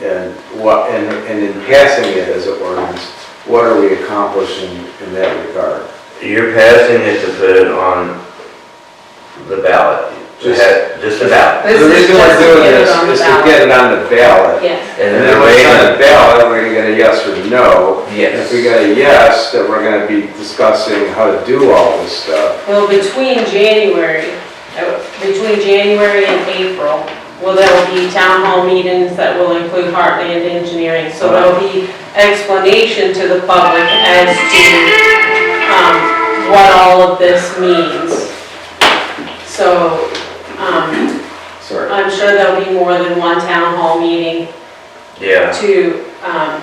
And what, and, and in passing it as an ordinance, what are we accomplishing in that regard? You're passing it to put it on the ballot, to Just- have- just a ballot. The reason we're doing this is to get it on the ballot. Yes. And And then then the when way it's on the that, ballot, we're gonna get a yes or no. And If we yes, get a yes, then we're gonna be discussing how to do all this stuff. Well, between January, uh, between January and April, well, there'll be town hall meetings that will include Heartland Engineering. So there'll be explanation to the public as to um, what all of this means. So um, Sorry. I'm sure there'll be more than one town hall meeting yeah. to, um,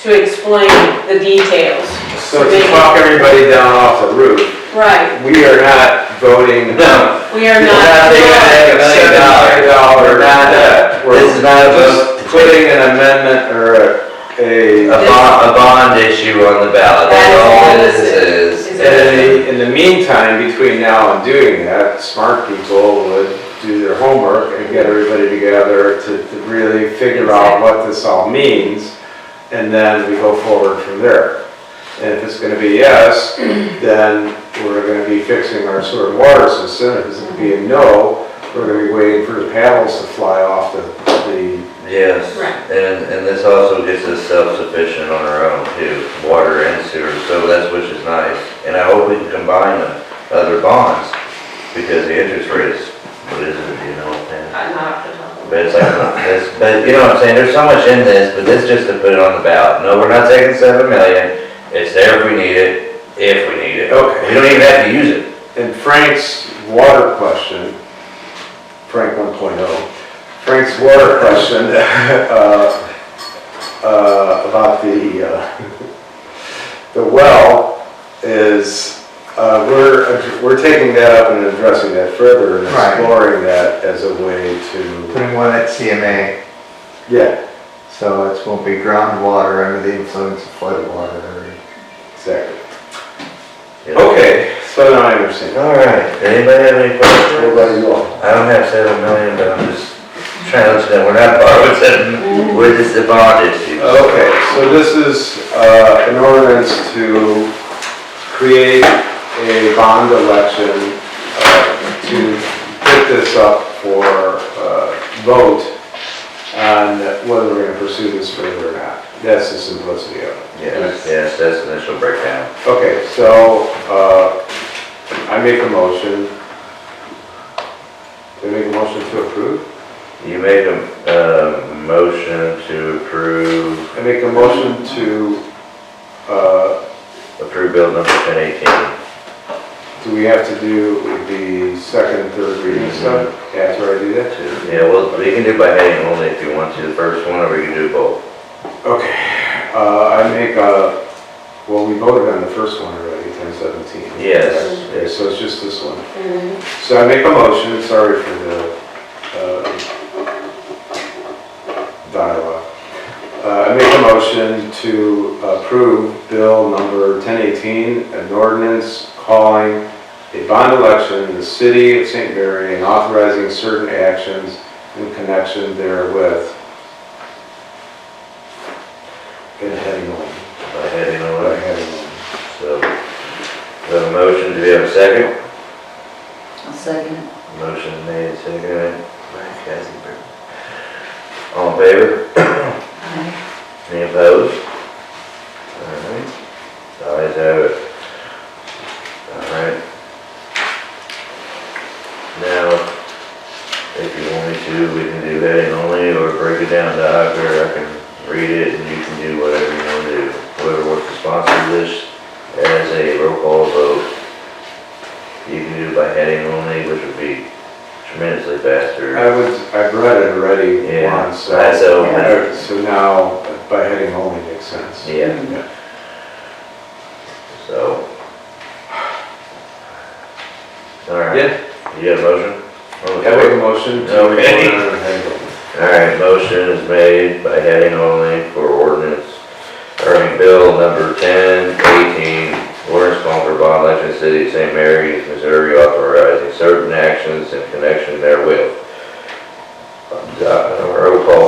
to explain the details. So to talk everybody down off the roof, Right, we are not voting. No, we are We're not. not taking Seven it. million dollars. dollar, not that. We're this is not a vote, just putting an amendment or a a, a, bond, a bond issue on the ballot, that's all this is. Is and in the meantime, between now and doing that, smart people would do their homework and get everybody together to, to really figure out what this all means, and then we go forward from there. And if it's gonna be yes, then we're gonna be fixing our sewer and water system, if it's gonna be a no, we're gonna be waiting for the paddles to fly off the, the Yes, Right. and, and this also gets us self-sufficient on our own too, water and sewer, so that's which is nice. And I hope we can combine the other bonds, because the interest rate is, what is it, you know, and, I'm not off the top of my- but it's like, it's, but you know what I'm saying, there's so much in this, but this just to put it on the ballot. No, we're not taking seven million, it's there if we need it, if we need it. Okay. We don't even have to use it. And Frank's water question, Frank 1.0, Frank's water question uh, uh, about the, uh, the well is, uh, we're, we're taking that up and addressing that further and Right. exploring that as a way to, Putting one at CMA, yeah, so it won't be groundwater under the influence of floodwater. exactly. you know. Okay, so now I understand. All right, anybody have any questions? Everybody well? I don't have seven million, but I'm just trying to understand, we're not borrowing seven, million. we're just the bond issue. Okay, so this is uh, an ordinance to create a bond election uh, to put this up for uh, vote on whether we're going to pursue this further or not. That's the simplicity of it. Yes, yes, that's the initial breakdown. Okay, so uh, I make a motion. Do I make a motion to approve? You make a, uh, motion to approve, I make a motion to, uh, approve bill number ten eighteen. do we have to do the second and third reading stuff after I do that? Yeah, well, we can do by heading only if you want to, the first one, or we can do both. Okay, uh, I make a, well, we voted on the first one already, ten seventeen. Yes, Okay, so it's just this one. Mhm. So I make a motion, sorry for the, uh, dialogue. Uh, I make a motion to approve bill number ten eighteen, an ordinance calling a bond election in the city of St. Mary and authorizing certain actions in connection therewith. And heading on, by heading but only, heading on. so, we have a motion, do we have a second? I'll second it. Motion made, seconded. All in favor? Aye. Any opposed? Alright, ayes have it. Alright. Now, if you want me to, we can do heading only or break it down to Hocker. I can read it and you can do whatever you want to do. Whoever wants to sponsor this as a roll call vote, you can do by heading only, which would be tremendously faster. I was, I've read it already Yeah, once, Uh, so. I saw uh, So now, by heading only makes sense. Yeah. So. Alright. Yeah. You got a motion? on the I make a floor? motion to. Okay. go on and head only. Alright, motion is made by heading only for ordinance, or I mean, bill number ten eighteen, ordinance calling for bond election city of St. Mary's, Missouri authorizing certain actions in connection therewith. Uh, Roll call